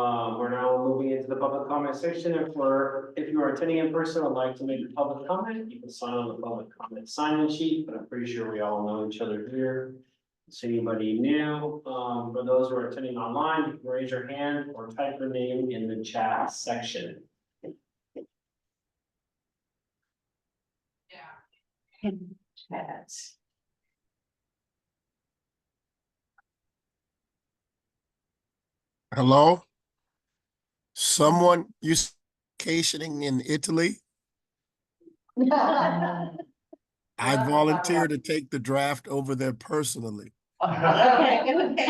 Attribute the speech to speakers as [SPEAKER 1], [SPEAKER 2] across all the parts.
[SPEAKER 1] Um, into the public comment section, if we're, if you are attending in person, and would like to make a public comment, you can sign on the public comment sign-in sheet, but I'm pretty sure we all know each other here. So anybody new, um, for those who are attending online, you can raise your hand or type your name in the chat section.
[SPEAKER 2] Chat.
[SPEAKER 3] Hello? Someone, you s- vacationing in Italy? I
[SPEAKER 2] Yeah.
[SPEAKER 3] volunteer to take the draft over there personally
[SPEAKER 2] Okay, okay.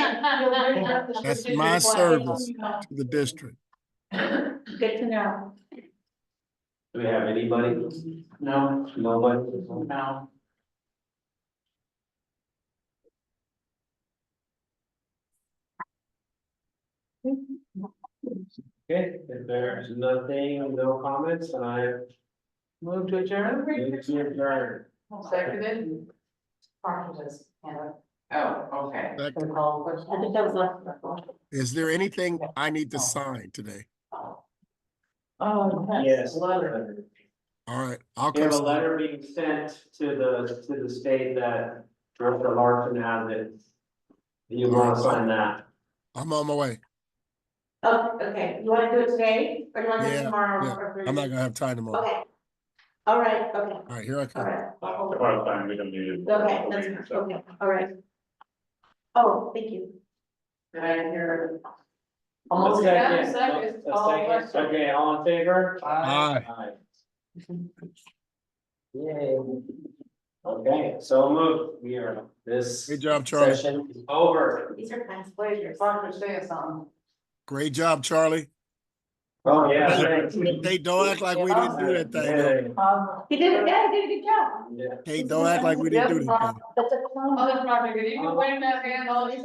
[SPEAKER 3] That's my service. to the district.
[SPEAKER 2] Good to know.
[SPEAKER 1] Do we have anybody? No. Nobody?
[SPEAKER 2] No.
[SPEAKER 1] Okay, if there's nothing, no comments, and I
[SPEAKER 2] Move to adjourn?
[SPEAKER 1] move to adjourn.
[SPEAKER 2] Seconded? Parkinson's, yeah. Oh, okay.
[SPEAKER 3] Second.
[SPEAKER 2] So call the question. I think that was last.
[SPEAKER 3] Is there anything I need to sign today?
[SPEAKER 2] Oh,
[SPEAKER 1] Yes.
[SPEAKER 2] Letter.
[SPEAKER 3] All right, I'll
[SPEAKER 1] We have a
[SPEAKER 3] come.
[SPEAKER 1] letter being sent to the, to the state that Director Larson has it. You want to sign that?
[SPEAKER 3] I'm on my way.
[SPEAKER 2] Oh, okay, you wanna do it today, or you wanna do it
[SPEAKER 3] Yeah,
[SPEAKER 2] tomorrow?
[SPEAKER 3] yeah.
[SPEAKER 2] or-
[SPEAKER 3] I'm not gonna have time tomorrow.
[SPEAKER 2] Okay. All right, okay,
[SPEAKER 3] All right, here I
[SPEAKER 2] all
[SPEAKER 3] come.
[SPEAKER 2] right. I'll hold it.
[SPEAKER 4] Well, fine, we don't need it.
[SPEAKER 2] Okay, that's, okay, all right. Oh, thank you. Did I hear? Almost.
[SPEAKER 1] A second, a second. Okay, all in favor?
[SPEAKER 3] Aye.
[SPEAKER 1] Aye. Yay. Okay, so moved, we are, this
[SPEAKER 3] Great job, Charlie.
[SPEAKER 1] session is over.
[SPEAKER 2] These are past pleasures. Parker, say um, us something.
[SPEAKER 3] Great job, Charlie.
[SPEAKER 1] Oh, yeah, thanks.
[SPEAKER 3] Hey, don't act like we didn't do that thing. though.
[SPEAKER 2] He did, yeah, he did a good job.
[SPEAKER 1] Yeah.
[SPEAKER 3] Hey, don't act like we didn't do that thing.
[SPEAKER 2] That's a clown.
[SPEAKER 5] Other project, if you can wave that hand, all these